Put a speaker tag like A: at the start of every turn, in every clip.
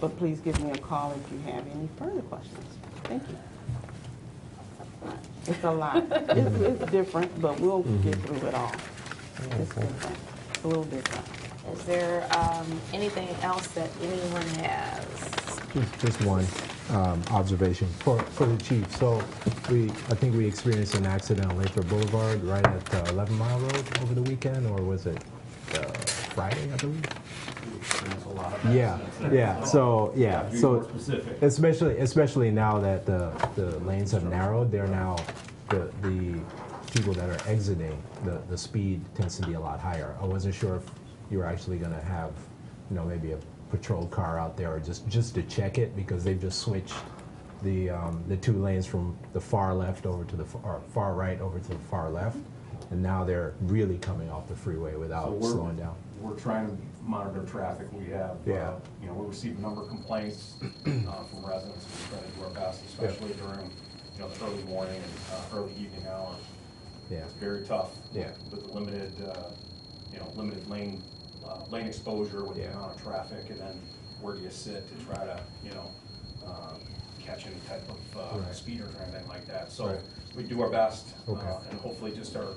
A: But please give me a call if you have any further questions. Thank you. It's a lot. It's, it's different, but we'll get through it all. It's different, It's a little different.
B: Is there um, anything else that anyone has?
C: Just just one um, observation for for the chief. So we, I think we experienced an accident on Lathrop Boulevard right at uh, 11 Mile Road over the weekend, or was it uh, Friday, I believe? Yeah, yeah, so, yeah,
D: Be
C: so.
D: more specific.
C: Especially, especially now that the, the lanes have narrowed, they're now, the, the people that are exiting, the, the speed tends to be a lot higher. I wasn't sure if you were actually gonna have, you know, maybe a patrol car out there or just, just to check it because they've just switched the, um, the two lanes from the far left over to the, f- or far right over to the far left. And now they're really coming off the freeway
D: So
C: without
D: we're-
C: slowing down.
D: We're trying to monitor traffic. We have,
C: Yeah.
D: uh, you know, we receive a number of complaints uh, from residents. We're trying to do our best, especially during, you know, the early morning and uh, early evening hours.
C: Yeah.
D: It's very tough.
C: Yeah.
D: With the limited, uh, you know, limited lane, uh, lane exposure with the
C: Yeah.
D: amount of traffic and then where do you sit to try to, you know, um, catch any type of uh,
C: Right.
D: speeders or anything like that. So
C: Right.
D: we do our best. uh,
C: Okay.
D: And hopefully just our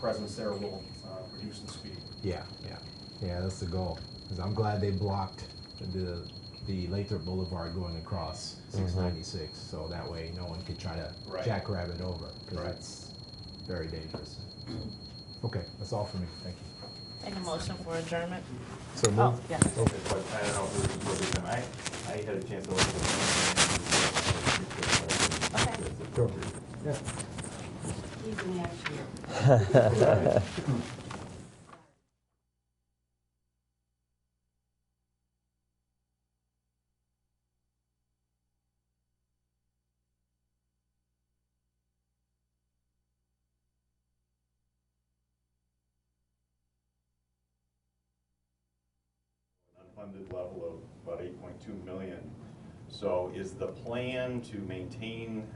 D: presence there will uh, reduce the speed.
C: Yeah, yeah, yeah. That's the goal. 'Cause I'm glad they blocked the the Lathrop Boulevard going across 696, so that way no one could try to
D: Right.
C: jackrabbit over because
D: Right.
C: that's very dangerous. Okay, that's all for me. Thank you.
B: Take a motion for adjournment?
C: So move.
B: Oh, yes.
E: But I don't know if it was recorded, and I, I had a chance to look at it.
B: Okay.
C: Sure. Yeah.
E: Unfunded level of about eight point two million. So is the plan to maintain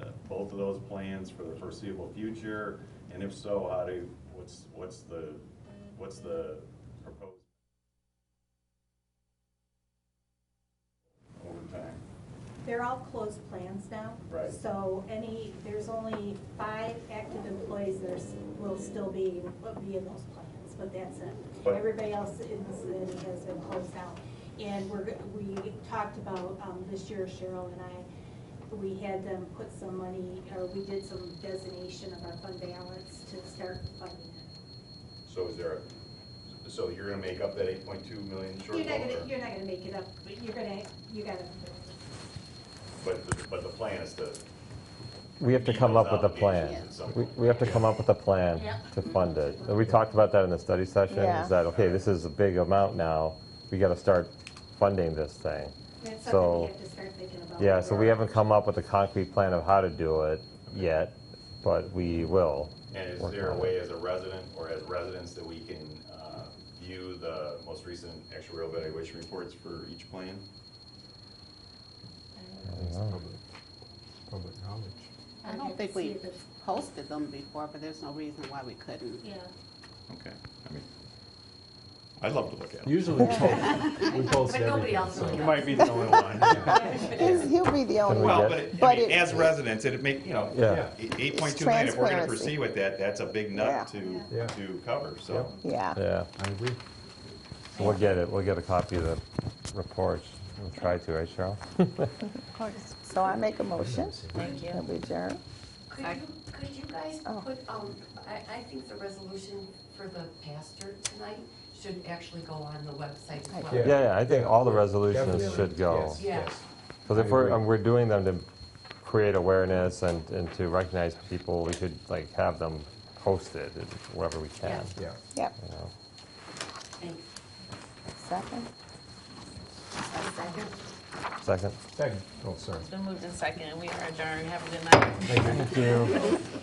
E: uh, both of those plans for the foreseeable future? And if so, how do, what's, what's the, what's the proposed? Over time,
F: They're all closed plans now.
E: Right.
F: So any, there's only five active employees that are s- will still be, will be in those plans, but that's it.
E: But-
F: Everybody else is, is- has been closed out. And we're, g- we talked about, um, this year Cheryl and I, we had them put some money, or we did some designation of our fund balance to start funding it.
E: so is there, a- so you're gonna make up that eight point two million shortfall?
F: You're not
E: or-
F: gonna, you're not gonna make it up, but you're gonna, you gotta,
E: But, the- but the plan is to.
G: We have to come up with a plan.
E: At some
G: We
E: point.
G: we have to come up with a plan to fund it. And We talked about that in the study session,
B: Yeah.
G: is that, okay, this is a big amount now, we got to start funding this thing.
F: that's something we
G: So,
F: have to start thinking about.
G: yeah, so we haven't come up with a concrete plan of how to do it yet, but we will.
E: And is
G: work
E: there a
G: on it.
E: way as a resident or as residents that we can uh, view the most recent actuarial valuation reports for each plan?
C: Public, public knowledge.
H: I don't think we posted them before, but there's no reason why we couldn't.
F: Yeah.
E: Okay, I mean, I'd love to look at
C: Usually we post, we post
B: But nobody
C: everything.
B: else
C: so-
B: will.
E: You might be the only one.
I: He's- He'll be the only
E: Well,
G: Yes.
I: one.
E: but, it- I
I: But
E: mean,
I: it-
E: as residents, it'd make, you know,
G: Yeah.
E: eight point two million, if we're gonna
I: Transparency.
E: proceed with that, that's a big nut
I: Yeah.
E: to,
C: Yeah.
E: to cover, so.
I: Yeah.
G: Yeah,
C: I agree.
G: we'll get it, we'll get a copy of the reports, we'll try to, right, Cheryl?
I: So I make a motion
B: Thank you.
I: that we adjourn.
J: Could you, could you guys
I: Oh.
J: put, um, I, I think the resolution for the pastor tonight should actually go on the website as well.
C: Yeah.
G: Yeah, yeah, I think all the
C: Definitely.
G: resolutions should go.
C: Yes,
J: Yeah.
C: yes.
G: Because
C: I
G: if we're,
C: agree.
G: and we're doing them to create awareness and, and to recognize people, we should like have them posted wherever we can.
J: Yeah.
C: Yeah.
I: Yep,
G: you know.
J: Thanks.
I: second.
J: A second?
G: Second?
C: Second. Oh, sorry.
B: It's been moved in second, and we are adjourned. Have a good night.
G: Thank you.